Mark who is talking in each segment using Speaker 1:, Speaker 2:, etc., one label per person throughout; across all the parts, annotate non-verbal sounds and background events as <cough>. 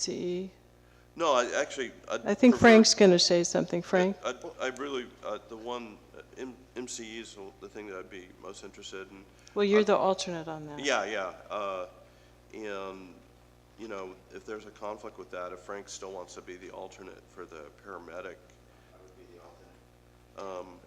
Speaker 1: MCE.
Speaker 2: No, I actually. I'd
Speaker 1: I think
Speaker 2: prefer-
Speaker 1: Frank's going to say something. Frank?
Speaker 2: I, I really, uh, the one, uh, M- MCE is the- the thing that I'd be most interested in.
Speaker 1: Well, you're the alternate on that.
Speaker 2: Yeah, yeah. uh, And, you know, if there's a conflict with that, if Frank still wants to be the alternate for the paramedic.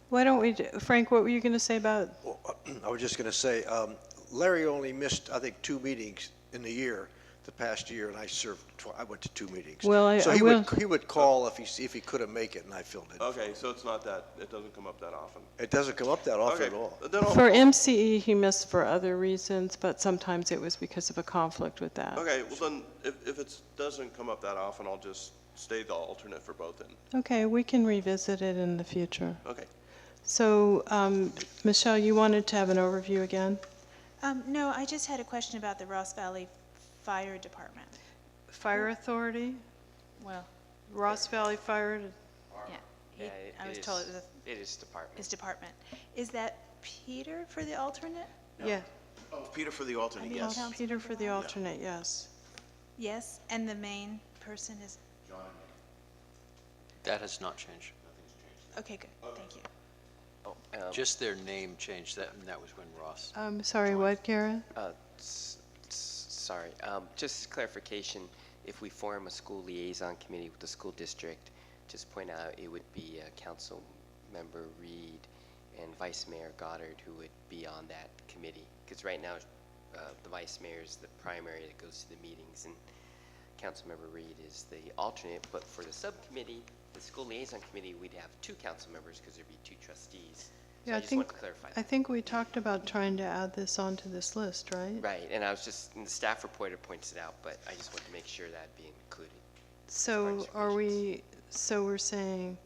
Speaker 1: Why don't we, do- Frank, what were you going to say about,
Speaker 3: Well, I was just going to say, um, Larry only missed, I think, two meetings in the year, the past year, and I served, tw- I went to two meetings.
Speaker 1: Well, I-
Speaker 3: So
Speaker 1: I
Speaker 3: he would,
Speaker 1: will-
Speaker 3: he would call if he, s- if he couldn't make it, and I filled it.
Speaker 2: Okay, so it's not that, it doesn't come up that often.
Speaker 3: It doesn't come up that often
Speaker 2: Okay,
Speaker 3: at all.
Speaker 2: then I'll-
Speaker 1: for MCE, he missed for other reasons, but sometimes it was because of a conflict with that.
Speaker 2: Okay, well then, if, if it doesn't come up that often, I'll just stay the alternate for both then.
Speaker 1: Okay, we can revisit it in the future.
Speaker 2: Okay.
Speaker 1: So, um, Michelle, you wanted to have an overview again?
Speaker 4: Um, no, I just had a question about the Ross Valley Fire Department.
Speaker 1: Fire Authority,
Speaker 4: Well,
Speaker 1: Ross Valley Fire,
Speaker 4: yeah. he-
Speaker 5: Yeah, it-
Speaker 4: I
Speaker 5: it
Speaker 4: was
Speaker 5: is-
Speaker 4: told it was a-
Speaker 5: It is department.
Speaker 4: his department. Is that Peter for the alternate?
Speaker 1: yeah.
Speaker 6: Oh, Peter for the alternate, yes.
Speaker 1: Peter for the alternate, yes.
Speaker 4: Yes, and the main person is,
Speaker 7: That has not changed.
Speaker 4: okay, good, thank you.
Speaker 5: Oh, um,
Speaker 7: Just their name changed, that, and that was when Ross.
Speaker 1: I'm Um, sorry, what, Garrett?
Speaker 5: uh, s- s- Sorry, um, just clarification, if we form a school liaison committee with the school district, just point out, it would be uh, Council Member Reed and Vice Mayor Goddard who would be on that committee. Because right now, uh, the Vice Mayor is the primary that goes to the meetings, and Councilmember Reed is the alternate, but for the subcommittee, the school liaison committee, we'd have two council members because there'd be two trustees. So
Speaker 1: Yeah, I
Speaker 5: just wanted
Speaker 1: think,
Speaker 5: to clarify
Speaker 1: I
Speaker 5: that.
Speaker 1: think we talked about trying to add this onto this list, right?
Speaker 5: Right, and I was just, and the staff reporter points it out, but I just wanted to make sure that being included.
Speaker 1: So
Speaker 5: Participation.
Speaker 1: are we, so we're saying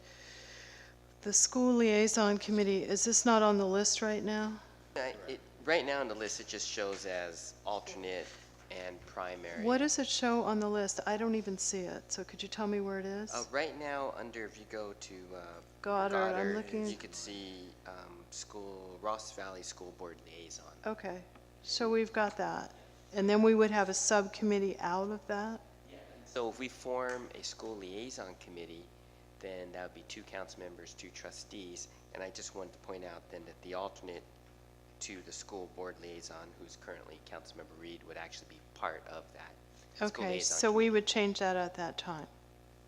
Speaker 1: the school liaison committee, is this not on the list right now?
Speaker 5: I- Uh, it- Right now on the list, it just shows as alternate and primary.
Speaker 1: What does it show on the list? I don't even see it, so could you tell me where it is?
Speaker 5: Uh, Right now, under, if you go to uh,
Speaker 1: Goddard, I'm looking-
Speaker 5: You could see um, school, Ross Valley School Board Liaison.
Speaker 1: Okay, so we've got that. And then we would have a subcommittee out of that?
Speaker 5: So if we form a school liaison committee, then that would be two council members, two trustees, and I just wanted to point out then that the alternate to the school board liaison, who's currently Councilmember Reed, would actually be part of that school
Speaker 1: Okay,
Speaker 5: liaison
Speaker 1: so we
Speaker 5: committee.
Speaker 1: would change that at that time.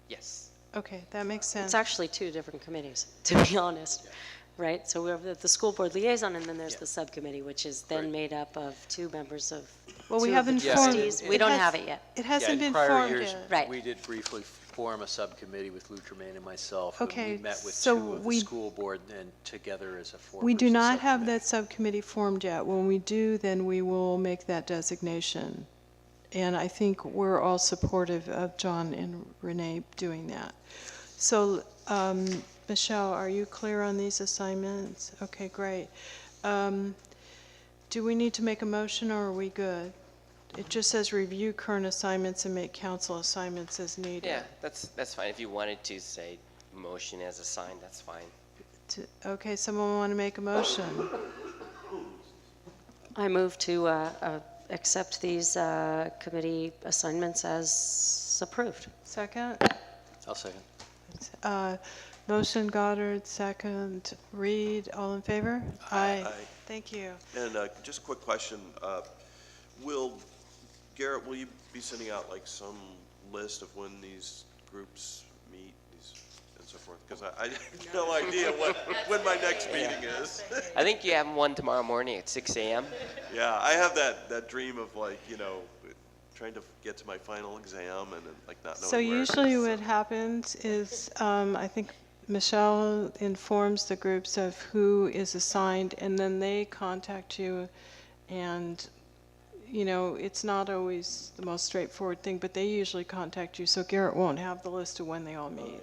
Speaker 5: Yes,
Speaker 1: Okay, that makes sense.
Speaker 8: It's actually two different committees, <laughs> to be honest, right? So we have the- the school board liaison, and then there's the subcommittee, which is then made up of two members of,
Speaker 1: Well,
Speaker 8: two
Speaker 1: we
Speaker 8: of the
Speaker 1: haven't formed.
Speaker 8: trustees. We
Speaker 1: it
Speaker 8: don't
Speaker 1: has-
Speaker 8: have it yet.
Speaker 1: It hasn't been formed yet.
Speaker 8: Right.
Speaker 7: We did briefly form a subcommittee with Lou Tremaine and myself. and
Speaker 1: Okay,
Speaker 7: we met with
Speaker 1: so
Speaker 7: two of the
Speaker 1: we-
Speaker 7: school board and together as a four-person
Speaker 1: We do not have
Speaker 7: subcommittee.
Speaker 1: that subcommittee formed yet. When we do, then we will make that designation. And I think we're all supportive of John and Renee doing that. So, um, Michelle, are you clear on these assignments? Okay, great. Um, do we need to make a motion or are we good? It just says review current assignments and make council assignments as needed.
Speaker 5: yeah, that's, that's fine. If you wanted to say motion as assigned, that's fine.
Speaker 1: To- Okay, someone want to make a motion?
Speaker 8: I move to uh, uh, accept these uh, committee assignments as approved.
Speaker 1: Second?
Speaker 7: I'll second.
Speaker 1: Uh, Motion Goddard, second Reed, all in favor? Aye.
Speaker 2: Aye.
Speaker 1: Thank you.
Speaker 2: And uh, just a quick question. uh, Will, Garrett, will you be sending out like some list of when these groups meet these and so forth? Because I I have no idea what, when my next meeting is.
Speaker 5: I think you have one tomorrow morning at six AM.
Speaker 2: Yeah, I have that, that dream of like, you know, trying to get to my final exam and then, like not knowing
Speaker 1: So
Speaker 2: where it
Speaker 1: usually
Speaker 2: is, so-
Speaker 1: what happens is, um, I think Michelle informs the groups of who is assigned, and then they contact you, and, you know, it's not always the most straightforward thing, but they usually contact you, so Garrett won't have the list of when they all meet.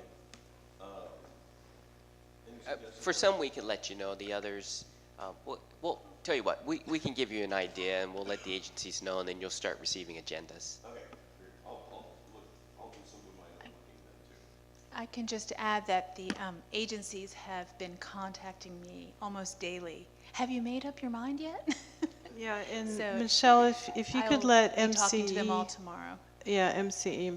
Speaker 5: Uh, For some, we can let you know, the others, uh, we'll, we'll tell you what, we, we can give you an idea, and we'll let the agencies know, and then you'll start receiving agendas.
Speaker 4: I can just add that the um, agencies have been contacting me almost daily. Have you made up your mind yet? <laughs>
Speaker 1: Yeah, and
Speaker 4: So-
Speaker 1: Michelle, if, if you
Speaker 4: I
Speaker 1: could
Speaker 4: will
Speaker 1: let
Speaker 4: be Talking to them all
Speaker 1: MCE,
Speaker 4: tomorrow.
Speaker 1: yeah, E MCE in